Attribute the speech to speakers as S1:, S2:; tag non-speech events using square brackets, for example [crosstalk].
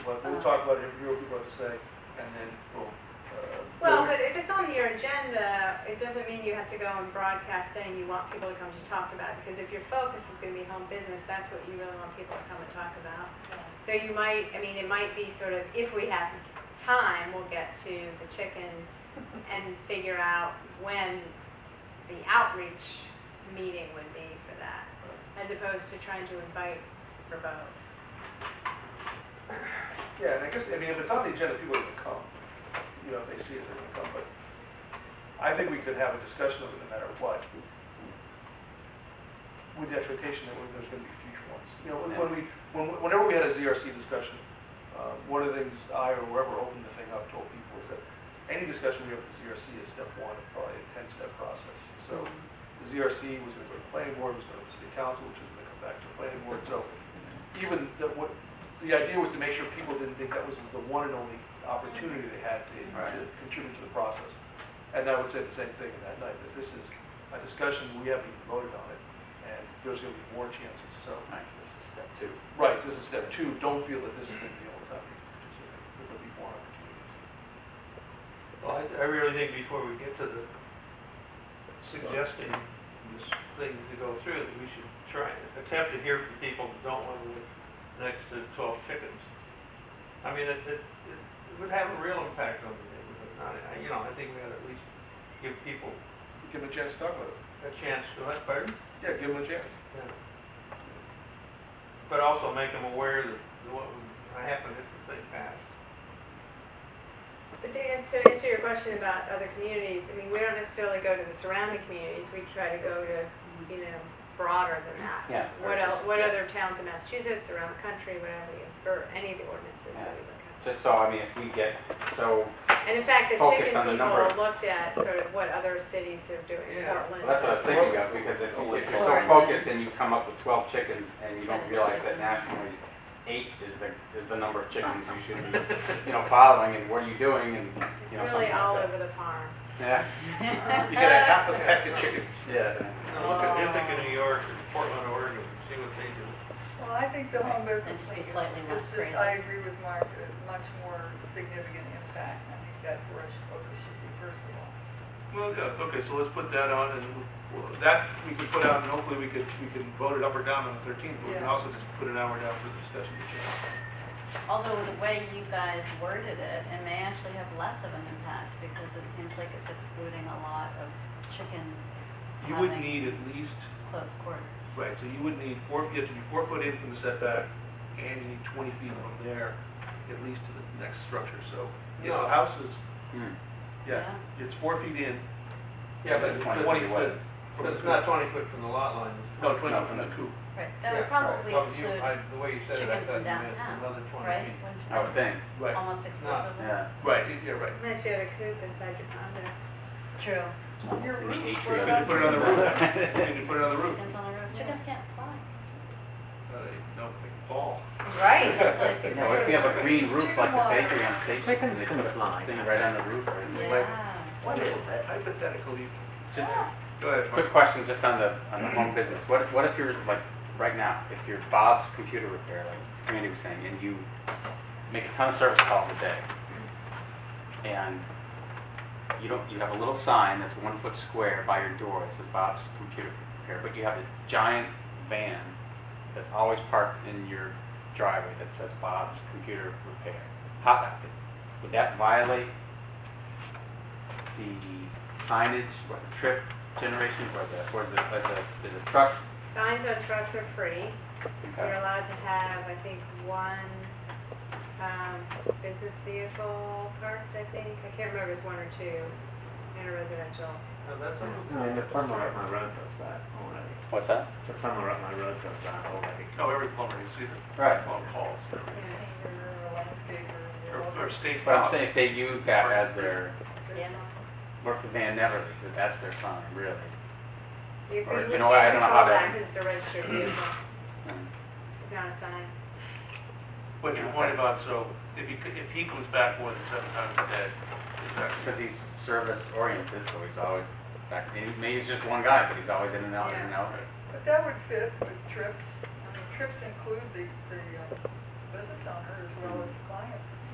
S1: Uh-huh.
S2: talk about it if you people have to say, and then we'll. uh,
S1: Well, but if it's on your agenda, it doesn't mean you have to go and broadcast saying you want people to come to talk about it, because if your focus is gonna be home business, that's what you really want people to come and talk about. So you might, I mean, it might be sort of, if we have time, we'll get to the chickens and figure out when the outreach meeting would be for that, as opposed to trying to invite for both.
S2: Yeah, and I guess, I mean, if it's on the agenda, people are gonna come, you know, if they see it, they're gonna come, but I think we could have a discussion of it no matter what. With the expectation that there's gonna be future ones. You know, when- when we, when- whenever we had a ZRC discussion, uh, one of the things I or whoever opened the thing up told people is that any discussion we have with the ZRC is step one, of probably a ten-step process. So the ZRC was gonna go to the planning board, was gonna go to the city council, which is gonna come back to the planning board, so even, the- what, the idea was to make sure people didn't think that was the one and only opportunity they had to, to contribute to the process. And I would say the same thing in that night, that this is a discussion, we haven't even voted on it, and there's gonna be more chances, so.
S3: Nice, this is step two.
S2: Right, this is step two, don't feel that this is gonna be the only time you can participate, there'll be more opportunities.
S4: Well, I, I really think before we get to the suggesting this thing to go through, that we should try, and attempt to hear from people who don't want to live next to twelve chickens. I mean, it, it, it would have a real impact on the neighborhood, not, I- you know, I think we ought to at least give people
S2: Give them a chance to talk about it.
S4: a chance to, uh, pardon?
S2: Yeah, give them a chance.
S4: Yeah. But also make them aware that what would happen if the thing passed.
S1: But to answer, answer your question about other communities, I mean, we don't necessarily go to the surrounding communities, we try to go to, you know, broader than that.
S3: Yeah.
S1: What else,
S3: Just-
S1: what other towns in Massachusetts, around the country, whatever, you- for any of the ordinances that we look at.
S3: Just so, I mean, if we get, so,
S1: And in fact, the
S3: Focus
S1: chicken
S3: on the number of-
S1: people looked at sort of what other cities are doing in
S4: Yeah.
S1: Portland.
S3: well, that's what I was thinking of, because if you get so
S1: Or-
S3: focused and you come up with twelve chickens and you don't realize that nationally, eight is the, is the number of chickens you should be, you know, following, and what are you doing, and,
S1: It's
S3: you know,
S1: really
S3: something
S1: all
S3: like that.
S1: over the farm.
S3: Yeah.
S2: You get a half a pack of chickens.
S3: Yeah.
S4: Now, look at Ithaca, New York, and Portland, Oregon, see what they do.
S5: Well, I think the home business
S6: It's
S5: thing
S6: just
S5: is,
S6: slightly less
S5: is just, I agree with Mark, a much more significant impact. I think that's where our focus should be first of all.
S2: Well, yeah, okay, so let's put that on, and we'll- that we could put out, and hopefully we could, we can vote it up or down on the thirteenth, but we can
S5: Yeah.
S2: also just put an hour down for the discussion.
S6: Although the way you guys worded it, it may actually have less of an impact because it seems like it's excluding a lot of chicken
S2: You would
S6: Having-
S2: need at least,
S6: close quarters.
S2: right, so you would need four, you have to be four foot in from the setback, and you need twenty feet from there, at least to the next structure, so. Yeah,
S4: No.
S2: the house is,
S3: Hmm.
S2: yeah, it's four feet in,
S4: Yeah,
S2: and
S4: but
S2: it's
S3: Twenty feet
S2: twenty
S3: wide.
S2: foot from
S4: But
S2: the
S4: it's not
S2: coop.
S4: twenty foot from the lot line. it's
S2: No,
S4: 20
S2: twenty
S3: No,
S2: foot from
S3: from
S2: the
S3: the-
S2: coop.
S6: Right, that
S4: Yeah,
S6: would probably
S4: right. Well, you-
S6: exclude
S4: I- The way you said it, I
S6: chickens
S4: thought
S6: from
S4: you meant
S6: downtown,
S4: another
S6: right?
S4: twenty feet.
S3: I would
S6: Wouldn't you
S3: think,
S6: think?
S2: Right,
S6: Almost exclusively?
S3: yeah.
S2: right, yeah, right.
S1: Unless you had a coop inside your condo.
S6: True.
S5: Your
S3: In the
S5: roof,
S3: atrium.
S2: [laughs]
S5: what
S2: You
S5: about
S2: can put it on the
S5: your-
S2: roof, you can put it on the roof,
S6: Chickens on the roof, chickens can't fly.
S2: uh, no, they fall.
S6: Right, it's like,
S3: [laughs] You know, if we have a green roof like the
S5: Chicken
S3: bakery on State Street, and they put a thing right on the roof, right? It's like-
S6: yeah.
S2: Hypothetically, go ahead, Mark.
S3: Quick question, just on the, on the home business, what, if- what if you're, like, right now, if you're Bob's computer repair, like Randy was saying, and you make a ton of service calls a day, and you don't, you have a little sign that's one foot square by your door, that says Bob's computer repair, but you have this giant van that's always parked in your driveway that says Bob's computer repair, how, would that violate the signage, or the trip generation, or the, or is it, is a, is a truck?
S1: Signs on trucks are free. You're
S3: Okay.
S1: allowed to have, I think, one um, business vehicle parked, I think. I can't remember if it's one or two in a residential.
S4: Now, that's a-
S7: I mean, the plumber up my road does that already.
S3: What's that?
S7: The plumber up my road does that already.
S2: No, every plumber, you see the
S3: Right.
S2: plumber calls,
S1: Yeah.
S5: Painter or landscaper or
S2: or, or state.
S3: But I'm
S2: house.
S3: saying if they use that as their,
S5: whatever.
S6: Yeah.
S3: or if Van Never, that's their sign, really.
S1: You
S3: Or,
S1: could
S3: you know what, I don't know how to-
S1: because it's a
S3: [clears throat]
S1: registered vehicle. It's not a sign.
S2: But your point about, so if he, c- if he comes back more than seven times a day, it's actually,
S3: Because he's service oriented, so he's always, back- and maybe he's just one guy, but he's always in and out, in and out.
S5: But that would fit with trips. I mean, trips include the, the uh, business owner as well as the client.